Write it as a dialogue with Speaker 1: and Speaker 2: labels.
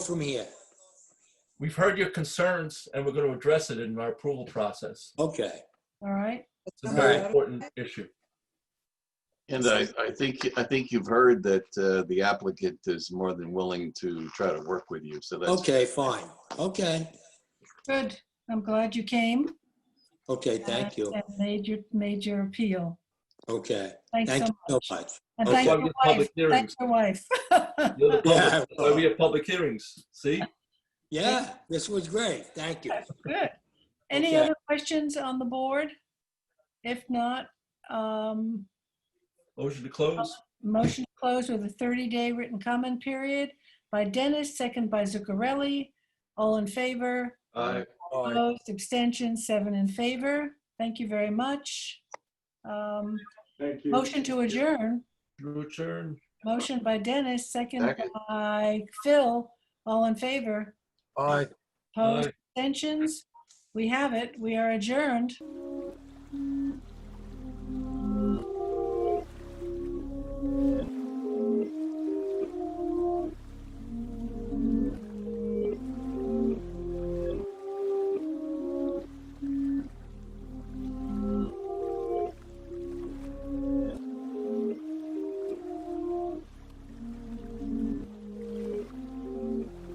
Speaker 1: from here?
Speaker 2: We've heard your concerns and we're going to address it in our approval process.
Speaker 1: Okay.
Speaker 3: All right,
Speaker 2: It's a very
Speaker 1: Alright.
Speaker 2: important issue.
Speaker 4: And I, I think, I think you've heard that uh, the applicant is more than willing to try to work with you, so that's.
Speaker 1: Okay, fine. Okay.
Speaker 3: good. I'm glad you came.
Speaker 1: Okay, thank you.
Speaker 3: And made your, made your appeal.
Speaker 1: Okay.
Speaker 3: Thanks so
Speaker 1: Thank you
Speaker 3: much.
Speaker 1: so much.
Speaker 3: And
Speaker 1: Okay.
Speaker 3: thank
Speaker 2: Why we have
Speaker 3: your wife.
Speaker 2: public
Speaker 3: Thank
Speaker 2: hearings.
Speaker 3: your wife.
Speaker 2: You're the public-
Speaker 1: Yeah.
Speaker 2: Why we have public hearings, see?
Speaker 1: Yeah, this was great. Thank you.
Speaker 3: Good. Any
Speaker 1: Okay.
Speaker 3: other questions on the board? If not, um,
Speaker 2: Motion to close?
Speaker 3: motion to close with a 30-day written comment period by Dennis, second by Zuccarelli. All in favor?
Speaker 2: Aye.
Speaker 1: All
Speaker 3: Opposed, abstentions, seven in favor. Thank you very much. Um,
Speaker 2: Thank
Speaker 3: Motion to adjourn.
Speaker 2: Return.
Speaker 3: Motion by Dennis, second
Speaker 4: Second.
Speaker 3: by Phil. All in favor?
Speaker 1: right.
Speaker 3: Opposed, abstentions? We have it. We are adjourned.